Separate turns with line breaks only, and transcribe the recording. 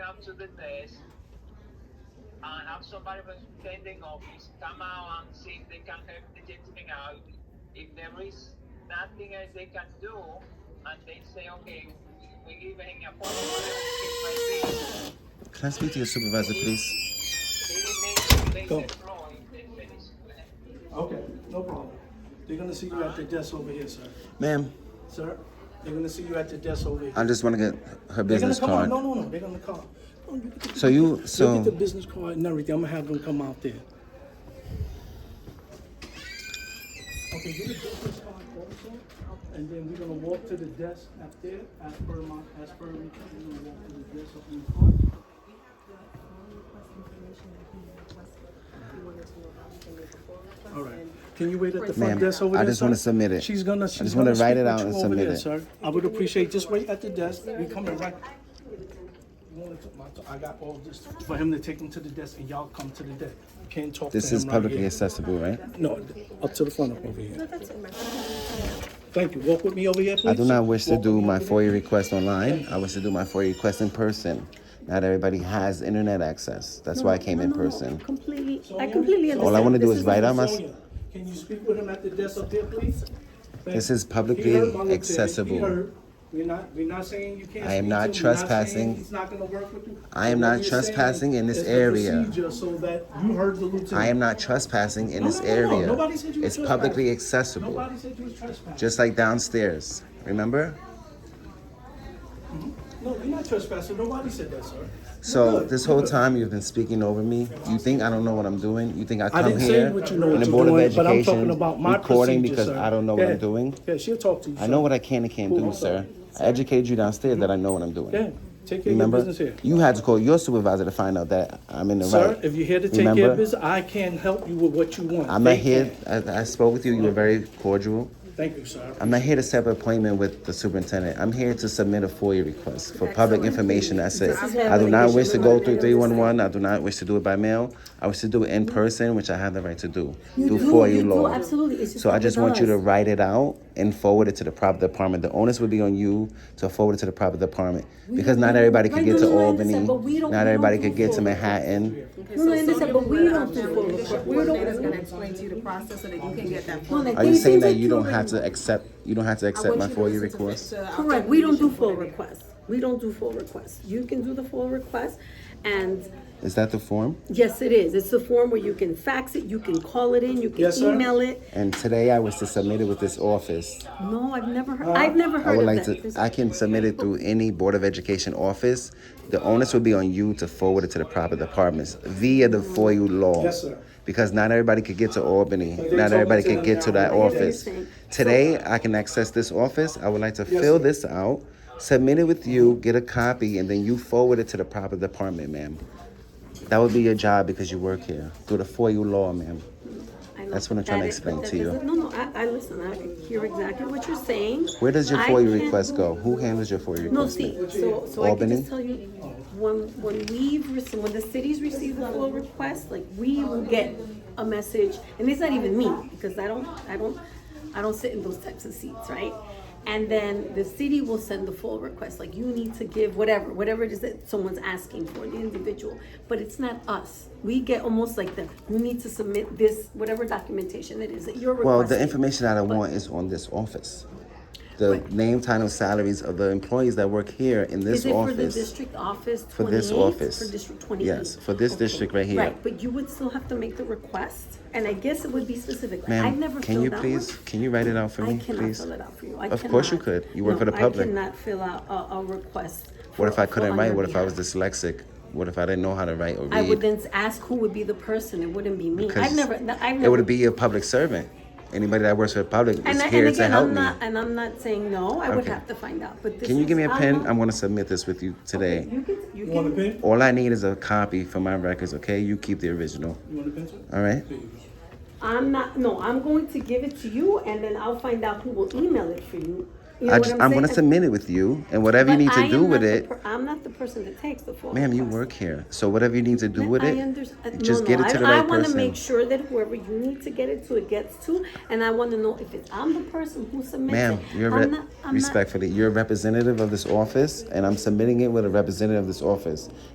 come to the test and have somebody from the pending office come out and see if they can help the gentleman out. If there is nothing else they can do, and they say, okay, we give him a phone call, it might be-
Can I speak to your supervisor, please?
Go.
Okay, no problem. They're gonna see you at the desk over here, sir.
Ma'am,
Sir, they're gonna see you at the desk over here.
I just want to get her
They're gonna
business
come
card.
out. No, no, no. They're gonna come. No, you get the-
So you,
you
so
get the business card and everything. I'm gonna have them come out there. Okay, get the business card also, and then we're gonna walk to the desk up there. As per my, as per we we're gonna walk to the desk up in the front. All right. Can you wait at the front
Ma'am,
desk over
I
there?
just wanna
sir?
submit it.
She's gonna.
I
She's
just wanna
gonna
write
speak
it
with
out
you
and
over
submit
there,
it.
Sir, I would appreciate. Just wait at the desk. We coming right. You wanna t- my- I got all this for him to take him to the desk, and y'all come to the desk. Can't talk.
this
to
is
him
publicly
Right
accessible, right?
here. No, up to the front up over here. Thank you. Walk with me over here, please.
I do not wish to
Walk with
do
me
my
over
FOIA request online. I wish to do my FOIA request in person. Not everybody has internet access. That's why I came in
No, no, no,
person.
Completely,
there.
I completely understand.
All I wanna do
This
is write out my-
Sonia, Can you speak with him at the desk up there, please? Thank
This
you.
is
He
publicly
heard my little thing. He
accessible.
heard. We're not, we're not saying you can't.
I am
speak
not
to him. We're saying
trespassing.
He's not gonna work with you.
I am
What
not
we're
trespassing
saying
in this
is the
area.
procedure So that you heard the lieutenant.
I am not trespassing in
No,
this
no, no, no.
area.
Nobody said you were
It's publicly
trespassing.
accessible,
Nobody said you was trespassing.
just like downstairs. Remember?
No, you're not trespassing. Nobody said that, sir. You're
So
good.
this
You're
whole
good.
time you've been speaking over me. You think I don't know what I'm doing? You think I
I
come
didn't say
here
what you know
on
what
the
you're
Board of
doing, but I'm
Education
talking about my
recording
procedure,
because
sir.
I don't know
Yeah.
what I'm doing?
Yeah, she'll talk to you.
I
sir.
know what I can and can't
Cool.
do, sir. I educated you downstairs that I know what I'm doing.
Yeah, take care of your
Remember,
business here.
you had to call your supervisor to find out that I'm in the
Sir,
right.
if you're here to take
Remember,
care of business, I can help you with what you want.
I'm not
Thank you.
here. I, I spoke with you. You were very cordial.
Thank you, sir.
I'm not here to set an appointment with the superintendent. I'm here to submit a FOIA request for public information. That's it.
This is
I do not wish to go
happening.
through 311. I do not wish to do it by mail. I wish to do it in person, which I have the right to do.
You
through
do,
FOIA
you do,
law.
absolutely. It's just
so I
not
just
with
want you
us.
to write it out and forward it to the proper department. The onus would be on you to forward it to the proper department because
don't-
not everybody could
Right,
get
no,
to
no, no, I
Albany.
understand, but we don't-
Not
we
everybody
don't do
could get to
forward.
Manhattan.
No, no, I understand, but we don't do full report. We don't.
Coordinator's gonna explain to you the process so that you can get that.
No, like,
Are you
they
saying
send
that
it
you don't
through
have
email.
to accept? You don't have to accept my FOIA request?
Correct, we don't do full requests. We don't do full requests. You can do the full request, and
Is that the form?
yes, it is. It's the form where you can fax it, you can call it in, you can
Yes, sir.
email it.
And today I was to submit it with this office.
No, Oh, I've never heard, I've never
Uh, I
heard
would
of
like
that.
to,
This-
I can submit it through any Board of Education office. The onus would be on you to forward it to the proper departments via the FOIA law.
Yes, sir.
Because not everybody could get to Albany,
they
not
told
everybody
me to
could get to
them
that
now.
office.
Interesting.
Today, I can access this office, I would like to fill
sir.
this out, submit it with you, get a copy, and then you forward it to the proper department, ma'am. That would be your job because you work here, through the FOIA law, ma'am.
I know
That's what I'm trying to
that is-
explain
that
to you.
is- No, no, I, I listen, I hear exactly what you're saying.
Where does your
I
FOIA
can't-
request go? Who handles your FOIA request?
No,
ma'am?
see, so, so I can
Albany?
just tell you, when, when we've, rece- when the cities receive the full request, like, we will get a message, and it's not even me, because I don't, I don't, I don't sit in those types of seats, right? And then the city will send the full request, like, you need to give whatever, whatever it is that someone's asking for, the individual, but it's not us. We get almost like the, you need to submit this, whatever documentation it is that you're requesting.
Well, the information that I want is on this office. The name, title, salaries of the employees that work here in this
Is it for the
office.
district office
For this
28?
office.
For district twenty-eight?
Yes, for this
Okay.
district right here.
Right, but you would still have to make the request, and I guess it would be specific. Like, I've never
Ma'am, can you
filled out one.
please, can you write it out for
I
me,
cannot
please?
fill it out for you. I
Of course you
cannot.
could. You work for the
No,
public.
I cannot fill out a, a request.
What if I
for-
couldn't
on
write?
your
What if I was
behalf.
dyslexic? What if I didn't know how to write or
I would
read?
then ask who would be the person, it wouldn't be me.
Because
I've never, no, I've never.
It would be a public servant. Anybody that works for the public
And
is
I- and
here to
again,
help
I'm
me.
not- And I'm not saying no, I would
Okay.
have to find out, but this
Can you give me a
is-
pen?
not-
I'm gonna submit this with you today.
You can,
You
you
want a
can,
pen?
All I need is a copy for my records, okay? You keep the original,
You want a pencil?
all right?
There you go.
I'm not, no, I'm going to give it to you and then I'll find out who will email it for you. You know
I
what
just, I'm gonna
saying?
submit it with you, and whatever you
But
need
I
to
am
do
not
with
the
it,
per- I'm not the person that takes the phone.
Ma'am, you
calls.
work here, so whatever you need to do with
I
it,
understand.
just
no,
get
no,
it to
I,
the right
I want to
person.
make sure that whoever you need to get it to, it gets to, and I want to know if it's I'm the person who submits
Ma'am,
it.
you're
I'm
re-
not- I'm not-
respectfully, you're a representative of this office, and I'm submitting it with a representative of this office.